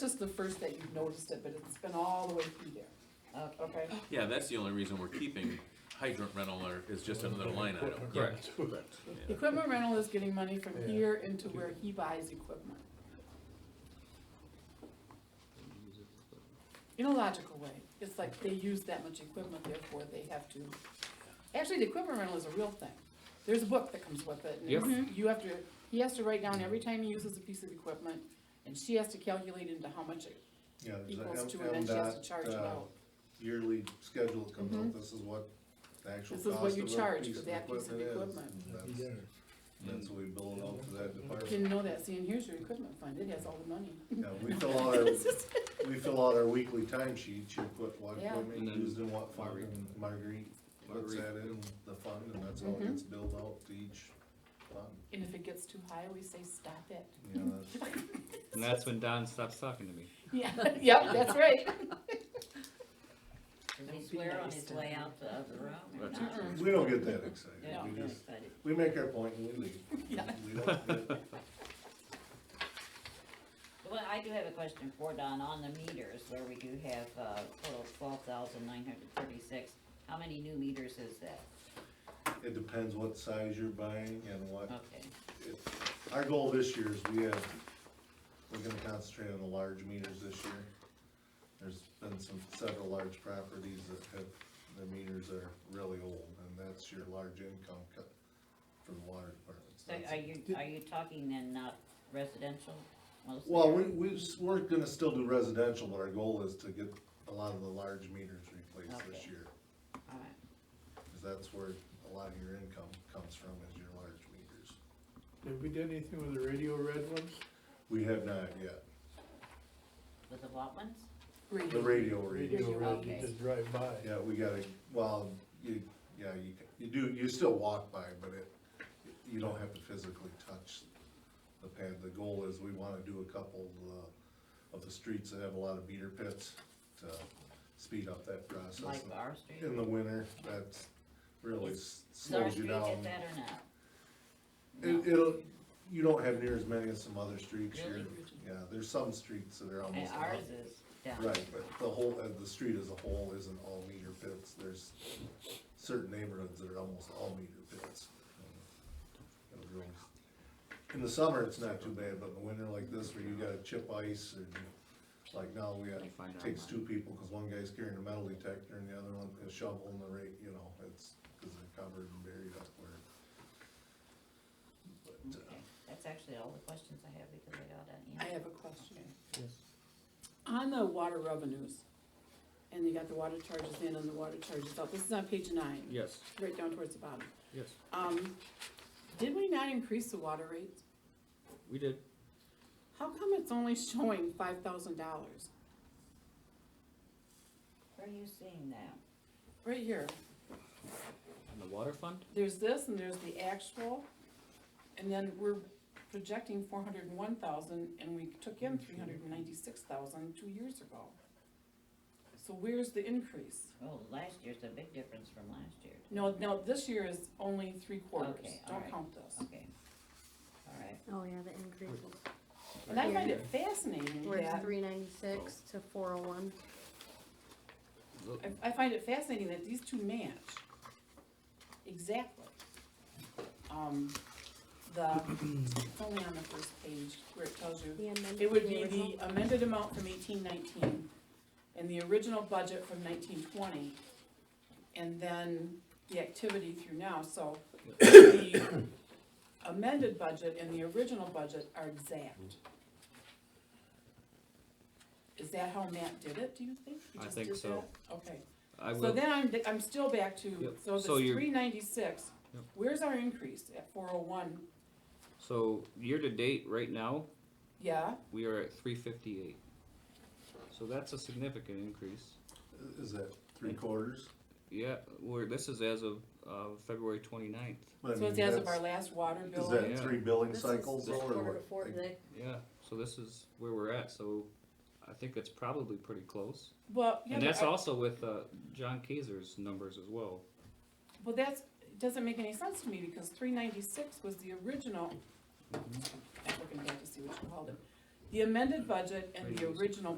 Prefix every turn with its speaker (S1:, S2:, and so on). S1: just the first that you've noticed it, but it's been all the way through there,
S2: Okay.
S1: okay?
S3: Yeah, that's the only reason we're keeping hydrant rental or is just another line item.
S4: Correct.
S3: Yeah.
S1: Equipment rental is getting money from
S4: Yeah.
S1: here into where he buys equipment. In a logical way, it's like they use that much equipment, therefore they have to, actually, the equipment rental is a real thing. There's a book that comes with it, and
S4: Yep.
S1: it's- you have to, he has to write down every time he uses a piece of equipment, and she has to calculate into how much it
S5: Yeah, there's
S1: equals
S5: a
S1: to, and then she has to charge
S5: MDOT
S1: it
S5: uh,
S1: out.
S5: yearly schedule that comes out, this is what the actual
S1: This
S5: cost
S1: is
S5: of
S1: what
S5: a piece
S1: you
S5: of
S1: charge
S5: equipment
S1: for
S5: is.
S1: that piece of equipment.
S5: That's- That's what we bill it out to that department.
S1: Didn't know that, see, and here's your equipment fund, it has all the money.
S5: Yeah, we fill out our, we fill out our weekly time sheets, you put what
S1: Yeah.
S5: equipment
S3: And
S5: you
S3: then-
S5: used in what fund, and Marguerite puts
S3: Marguerite.
S5: that in the fund, and that's how it
S1: Mhm.
S5: gets billed out to each fund.
S1: And if it gets too high, we say, stop it.
S5: Yeah,
S1: Mm-hmm.
S5: that's,
S4: And that's when Don stops talking to me.
S1: Yeah, yep, that's right.
S2: Did he swear on his way out the other room? or
S3: That's
S2: not?
S5: we don't get that excited,
S2: No,
S5: we
S2: good,
S5: just,
S2: but it-
S5: we make our point and we leave.
S1: Yeah.
S5: We don't get-
S2: Well, I do have a question for Don, on the meters, where we do have, uh, total twelve thousand nine hundred thirty-six, how many new meters is that?
S5: It depends what size you're buying and what
S2: Okay,
S5: Our goal this year is we have, we're gonna concentrate on the large meters this year. There's been some, several large properties that have, their meters are really old, and that's your large income cut for the water department.
S2: so are you, are you talking then not residential mostly?
S5: Well,
S2: or-
S5: we, we, s- we're gonna still do residential, but our goal is to get a lot of the large meters replaced this
S2: Okay.
S5: year.
S2: all right.
S5: Cause that's where a lot of your income comes from, is your large meters.
S6: Have we done anything with the radio red ones?
S5: We have not yet,
S2: With the what ones?
S5: the radio readers.
S6: Radio red, you
S2: okay.
S6: just drive by.
S5: Yeah, we gotta, well, you, yeah, you, you do, you still walk by, but it, you don't have to physically touch the pad. The goal is we wanna do a couple, uh, of the streets that have a lot of beater pits to speed up that process.
S2: Like our street?
S5: In the winter, that's really s-
S2: Does our
S5: slows you
S2: street
S5: down.
S2: get that or not?
S5: It, it'll, you don't have near as many as some other streets. You're-
S2: Really?
S5: Yeah, there's some streets that are
S2: And
S5: almost.
S2: ours
S5: not-
S2: is down.
S5: Right, but the whole, uh, the street as a whole isn't all meter pits, there's certain neighborhoods that are almost all meter pits. It'll grow. In the summer, it's not too bad, but in the winter like this, where you gotta chip ice, and like now, we got,
S4: I find out
S5: takes
S4: mine.
S5: two people, cause one guy's carrying a metal detector, and the other one is shoveling the rate, you know, it's, cause they're covered and buried up where. But, uh,
S2: Okay, That's actually all the questions I have because I got an
S1: I
S2: answer.
S1: have a question. On the water revenues, and you got the water charges in and the water charges out, this is on page nine.
S4: Yes,
S1: Right down towards the bottom.
S4: yes,
S1: Um, did we not increase the water rates?
S4: we did.
S1: How come it's only showing five thousand dollars?
S2: Where are you seeing that?
S1: Right here,
S4: And the water fund?
S1: there's this and there's the actual, and then we're projecting four hundred and one thousand, and we took in three hundred and ninety-six thousand two years ago. So where's the increase?
S2: Oh, last year's a big difference from last year.
S1: No, no, this year is only three quarters,
S2: Okay, all
S1: don't
S2: right.
S1: count this.
S2: Okay, all right.
S7: Oh, yeah, the increase
S1: And I find it fascinating
S7: We're at
S1: that,
S7: three ninety-six to four oh one.
S4: Look,
S1: I, I find it fascinating that these two match. Exactly. Um, the, it's only on the first page where it tells you It would be the amended amount from eighteen nineteen, and the original budget from nineteen twenty, and then the activity through now, so the amended budget and the original budget are exact. Is that how Matt did it, do you think? He
S4: I
S1: just
S4: think
S1: did
S4: so.
S1: that? Okay,
S4: I
S1: so
S4: will,
S1: then I'm, I'm still back to,
S4: Yep.
S1: so this
S4: So you're-
S1: three ninety-six,
S4: Yep.
S1: where's our increase at four oh one,
S4: so year-to-date, right now,
S1: yeah?
S4: we are at three fifty-eight. So that's a significant increase.
S5: uh, Is that three quarters?
S4: Yeah, we're, this is as of, uh, February twenty-ninth,
S5: I
S1: So
S5: mean,
S1: it's as of
S5: that's-
S1: our last water bill.
S5: Is
S4: Yeah.
S5: that three billing
S7: This is
S5: cycles though, or
S7: Quarter to
S5: what?
S7: four,
S5: Like,
S7: they-
S4: yeah, so this is where we're at, so I think it's probably pretty close.
S1: Well, yeah,
S4: And
S1: but
S4: that's
S1: I-
S4: also with, uh, John Kaiser's numbers as well.
S1: Well, that's, doesn't make any sense to me, because three ninety-six was the original, I'm looking back to see what you called it. the amended budget and the original